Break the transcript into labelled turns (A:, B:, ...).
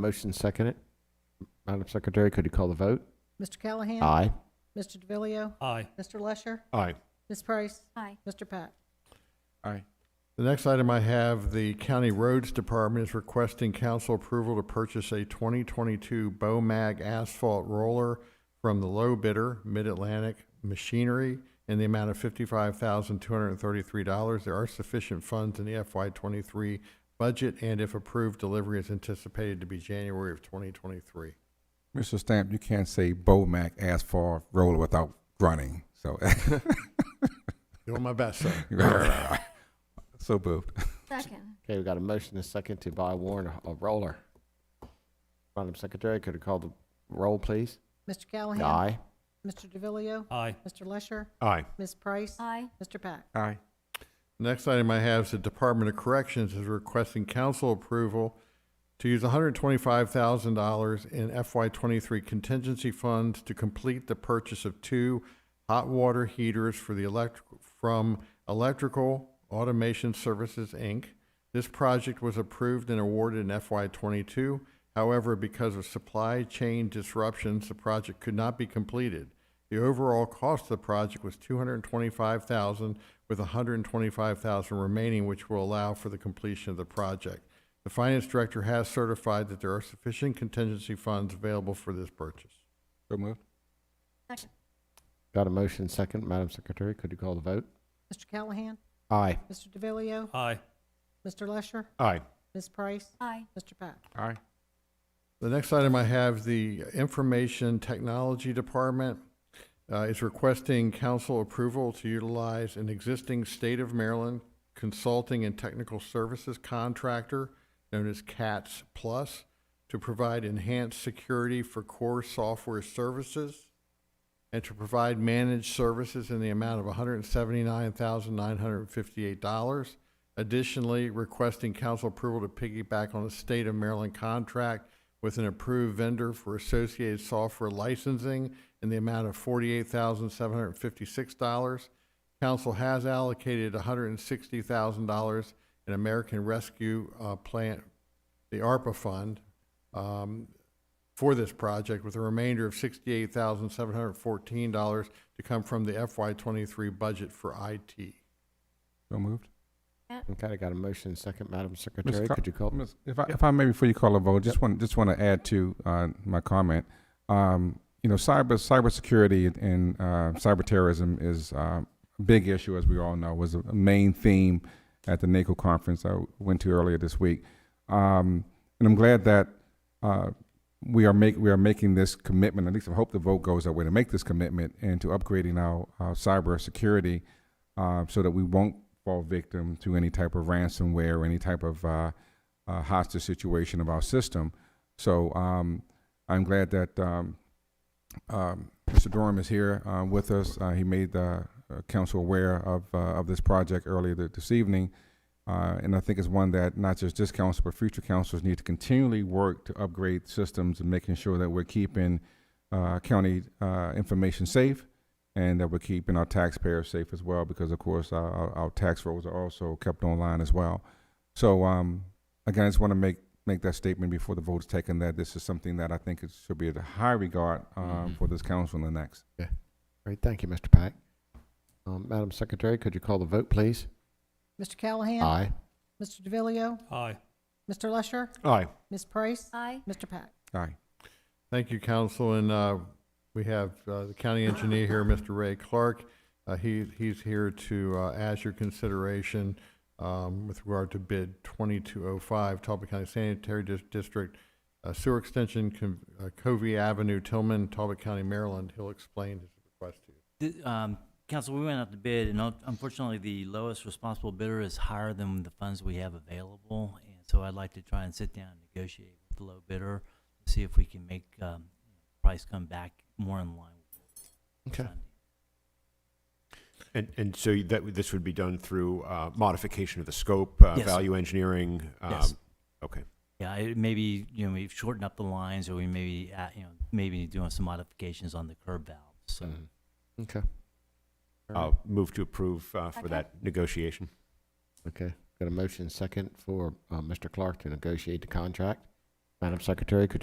A: Motion seconded. Madam Secretary, could you call the vote?
B: Mr. Callahan?
A: Aye.
B: Mr. DeVillio,
C: Aye.
B: Mr. Lesher?
D: Aye.
B: Ms. Price?
E: Aye.
B: Mr. Pack?
A: Aye.
D: The next item I have, the County Roads Department is requesting council approval to purchase a 2022 BOMAG asphalt roller from the low bidder, Mid-Atlantic Machinery, in the amount of $55,233. There are sufficient funds in the FY23 budget, and if approved, delivery is anticipated to be January of 2023.
F: Mr. Stamp, you can't say Bomac asphalt roller without grunting. So,
D: Doing my best, sir.
F: so moved.
E: Second.
A: Okay, we got a motion and a second to buy Warren a- a roller. Madam Secretary, could you call the roll, please?
B: Mr. Callahan?
A: Aye.
B: Mr. DeVillio,
C: Aye.
B: Mr. Lesher?
D: Aye.
B: Ms. Price?
E: Aye.
B: Mr. Pack?
F: Aye.
D: Next item I have is the Department of Corrections is requesting council approval to use $125,000 in FY23 contingency funds to complete the purchase of two hot water heaters for the elect, from Electrical Automation Services, Inc. This project was approved and awarded in FY22. However, because of supply chain disruptions, the project could not be completed. The overall cost of the project was two hundred and twenty-five thousand, with $125,000 remaining, which will allow for the completion of the project. The finance director has certified that there are sufficient contingency funds available for this purchase.
F: So moved.
E: Second.
A: Got a motion and second. Madam Secretary, could you call the vote?
B: Mr. Callahan?
A: Aye.
B: Mr. DeVillio,
C: Aye.
B: Mr. Lesher?
D: Aye.
B: Ms. Price?
E: Aye.
B: Mr. Pack?
F: Aye.
D: The next item I have, the Information Technology Department uh, is requesting council approval to utilize an existing State of Maryland consulting and technical services contractor known as CATS Plus to provide enhanced security for core software services and to provide managed services in the amount of $179,958. Additionally, requesting council approval to piggyback on a state of Maryland contract with an approved vendor for associated software licensing in the amount of $48,756. Council has allocated $160,000 in American Rescue uh, Plan, the ARPA fund, um, for this project, with a remainder of sixty-eight thousand seven hundred fourteen dollars to come from the FY twenty-three budget for IT.
F: So moved.
A: Okay, I got a motion and second. Madam
F: Mr.
A: Secretary,
F: Co-
A: could you call?
F: Miss- If I, if I may, before you call a vote, just want, just want to add to, uh, my comment. Um, you know, cyber, cybersecurity and, uh, cyber terrorism is, uh, a big issue, as we all know, was a main theme at the NACO conference I went to earlier this week. Um, and I'm glad that, uh, we are make, we are making this commitment, at least I hope the vote goes that way, to make this commitment and to upgrading our, our cybersecurity, uh, so that we won't fall victim to any type of ransomware or any type of, uh, uh, hostage situation of our system. So um, I'm glad that um, um, Mr. Durham is here uh, with us. Uh, he made the uh, council aware of uh, of this project earlier th- this evening, uh, and I think it's one that not just this council but future councils need to continually work to upgrade systems and making sure that we're keeping uh, county uh, information safe. And that we're keeping our taxpayers safe as well, because of course our, our- our tax rolls are also kept online as well. So um, again, I just want to make, make that statement before the vote is taken, that this is something that I think it should be at a high regard um, for this council and the next.
A: Great, thank you, Mr. Pack. Um, Madam Secretary, could you call the vote, please?
B: Mr. Callahan?
A: Aye.
B: Mr. DeVillio,
C: Aye.
B: Mr. Lesher?
D: Aye.
B: Ms. Price?
E: Aye.
B: Mr. Pack?
F: Aye.
D: Thank you, council, and uh, we have uh, the county engineer here, Mr. Ray Clark. Uh, He, he's here to uh, ask your consideration um, with regard to bid 2205, Talbot County Sanitary Dis- District uh, Sewer Extension, Con- uh, Covey Avenue, Tillman, Talbot County, Maryland. He'll explain his request to you.
G: The, um, council, we went out to bid, and un- unfortunately, the lowest responsible bidder is higher than the funds we have available. And so I'd like to try and sit down and negotiate with the low bidder, see if we can make, um, price come back more in line. with
A: Okay.
G: Sunday.
H: And, and so you- that, this would be done through uh, modification of the scope, uh,
G: Yes.
H: value engineering?
G: Yes.
H: um, Okay.
G: Yeah, it maybe, you know, we've shortened up the lines, or we maybe, uh, you know, maybe doing some modifications on the curb valves, so.
A: Okay.
H: I'll uh, move to approve uh, for
E: Second.
H: that negotiation.
A: Okay, got a motion and second for uh, Mr. Clark to negotiate the contract. Madam Secretary, could you